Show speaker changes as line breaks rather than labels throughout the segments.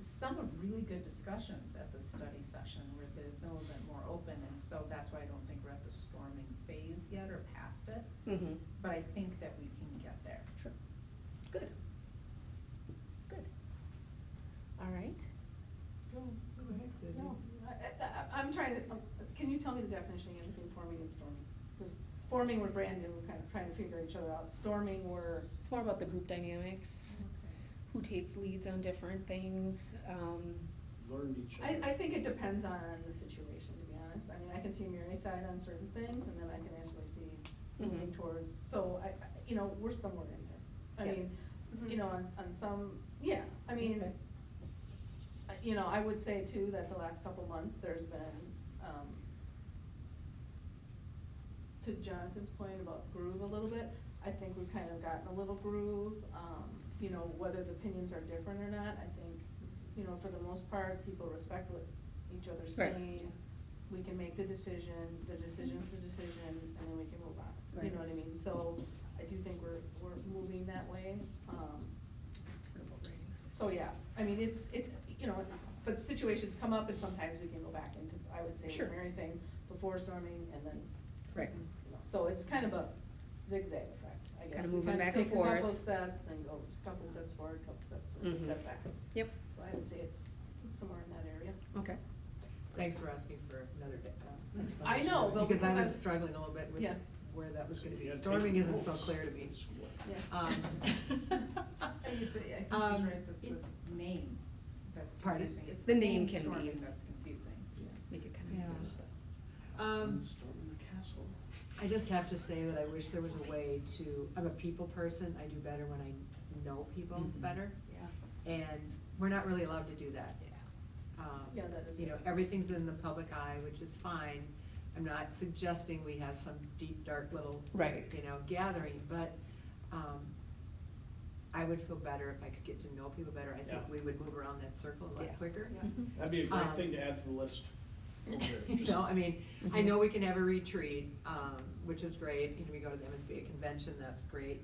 some of really good discussions at the study session where they're a little bit more open, and so that's why I don't think we're at the storming phase yet or past it,
Mm-hmm.
but I think that we can get there.
Sure. Good. Good. All right.
Go, go ahead, Debbie.
No, I, I, I'm trying to, um, can you tell me the definition again between forming and storming? Because forming, we're brand new, we're kind of trying to figure each other out. Storming, we're,
It's more about the group dynamics, who takes leads on different things. Um,
learned each
I,
other.
I think it depends on the situation, to be honest. I mean, I can see Mary's side on certain things, and then I can actually see moving
Mhm.
towards, so I, I- you know, we're somewhere in there. I
Yeah. Mm-hmm.
mean, you
Mhm.
know, on, on some, yeah, I mean,
Okay.
I- you know, I would say too, that the last couple months, there's been, um, to Jonathan's point about groove a little bit, I think we've kind of gotten a little groove, um, you know, whether the opinions are different or not, I think, you know, for the most part, people respect what each other's
Right.
saying. We can make the decision, the decision's the decision, and then we can move on, you
Right.
know what I mean? So, I do think we're, we're moving that way, um, so, yeah, I mean, it's, it, you know, but situations come up and sometimes we can go back into, I would say,
Sure.
what Mary's saying, before storming and then,
Right.
you know, so it's kind of a zigzag effect, I guess.
Kinda
We
moving
kinda
back and
Take a couple
forth.
steps, then go a couple steps forward, couple steps, forward,
Mhm.
step back.
Yep.
So I would say it's somewhere in that area.
Okay.
Thanks for asking for another day. uh,
I know, but
Because I
because
was
I-
struggling a little bit with
Yeah.
where that was gonna be.
Yeah, take
Storming isn't so
notes.
clear to me.
It's what-
Yeah.
Um,
I think it's, I think she's
Um,
right, that's
it-
the name that's
Pardon?
confusing. It's
The name can
storming
be-
That's confusing.
Make it kind of.
Yeah.
I'm
Um,
storming the castle.
I just have to say that I wish there was a way to, I'm a people person, I do better when I know people
Mhm.
better,
Yeah.
and we're not really allowed to do that. Um,
Yeah, that is
You know,
it.
everything's in the public eye, which is fine. I'm not suggesting we have some deep, dark little.
Right.
You know, gathering, but, um, I would feel better if I could get to know people better. I think
Yeah.
we would move around that circle a
Yeah.
lot quicker.
Yeah.
Mm-hmm.
That'd be a great
Um,
thing to add to the list. over there,
You
just-
know, I mean, I
Mhm.
know we can have a retreat, um, which is great, and we go to the MSBA convention, that's great,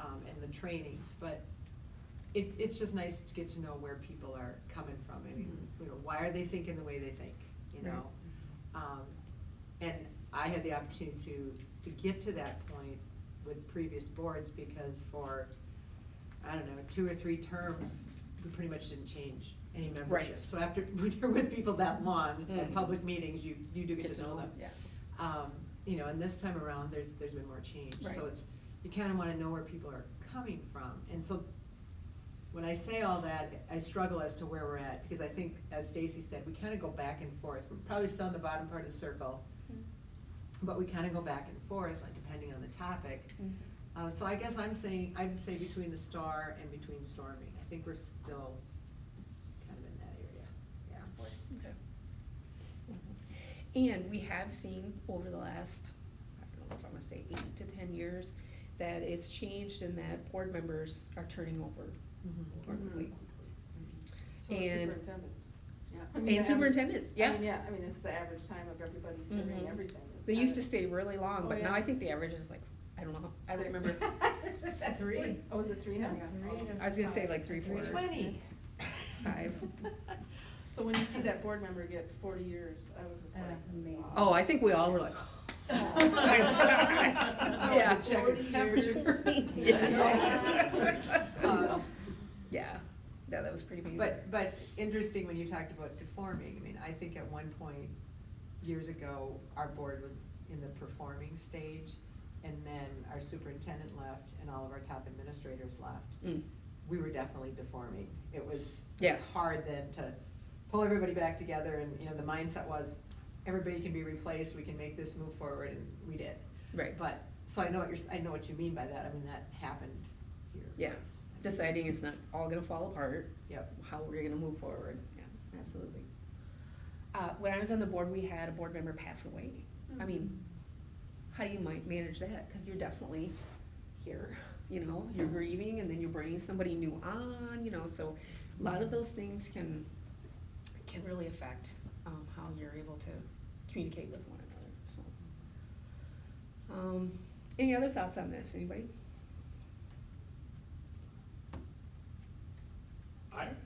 um, and the trainings, but it, it's just nice to get to know where people are coming from, I mean, you know, why are they thinking the way they think, you
Mm-hmm. Right.
know? Um, and I had the opportunity to, to get to that point with previous boards, because for, I don't know, two or three terms, we pretty much didn't change any membership.
Right.
So after, when you're with people that long, at
Mm.
public meetings, you, Mm-hmm. you do get to know them.
Yeah.
Um, you know, and this time around, there's, there's been more change, so
Right.
it's, you kinda wanna know where people are coming from, and so when I say all that, I struggle as to where we're at, because I think, as Stacy said, we kinda go back and forth, we're probably still on the bottom part of the circle,
Mm-hmm.
but we kinda go back and forth, like, depending on the topic.
Mhm.
Uh, so I guess I'm saying, I'd say between the star and between storming, I think we're still kind of in that area, yeah.
Mm-hmm. And we have seen over the last, I don't know if I'm gonna say eight to ten years, that it's changed and that board members are turning over more
Mm-hmm.
Mhm.
quickly.
So the
And-
superintendents, yeah. I mean, the
And
average-
superintendents, yeah.
I mean, yeah, I mean, it's the average time of everybody serving
Mhm.
everything. is
They used
kind
to
of-
stay really long,
Oh,
but now
yeah.
I think the average is like, I don't know, how- I don't
Six.
remember.
Three.
Oh, is it three now?
Yeah, three.
I was gonna say like three, four.
Three twenty.
Five.
So when you see that board member get forty years, I was just like.
Uh, amazing.
wow.
Oh, I think we all were like. Oh my God. Yeah.
Check his temperature.
Yeah.
Um,
Yeah, yeah, that was pretty amazing.
But, but interesting when you talked about deforming, I mean, I think at one point, years ago, our board was in the performing stage, and then our superintendent left, and all of our top administrators left.
Mm.
We were definitely deforming, it was, it
Yeah.
was hard then to pull everybody back together, and, you know, the mindset was, everybody can be replaced, we can make this move forward, and we did.
Right.
But, so I know what you're, s- I know what you mean by that, I mean, that happened here.
Yeah,
Yes.
deciding it's not all gonna fall apart.
Yep.
How we're gonna move forward, yeah, absolutely. Uh, when I was on the board, we had a board member pass away. I mean, how do you might manage that? Cause you're definitely here, you know, you're grieving and then you're bringing somebody new on, you know, so a lot of those things can, can really affect, um, how you're able to communicate with one another, so. Um, any other thoughts on this, anybody?
I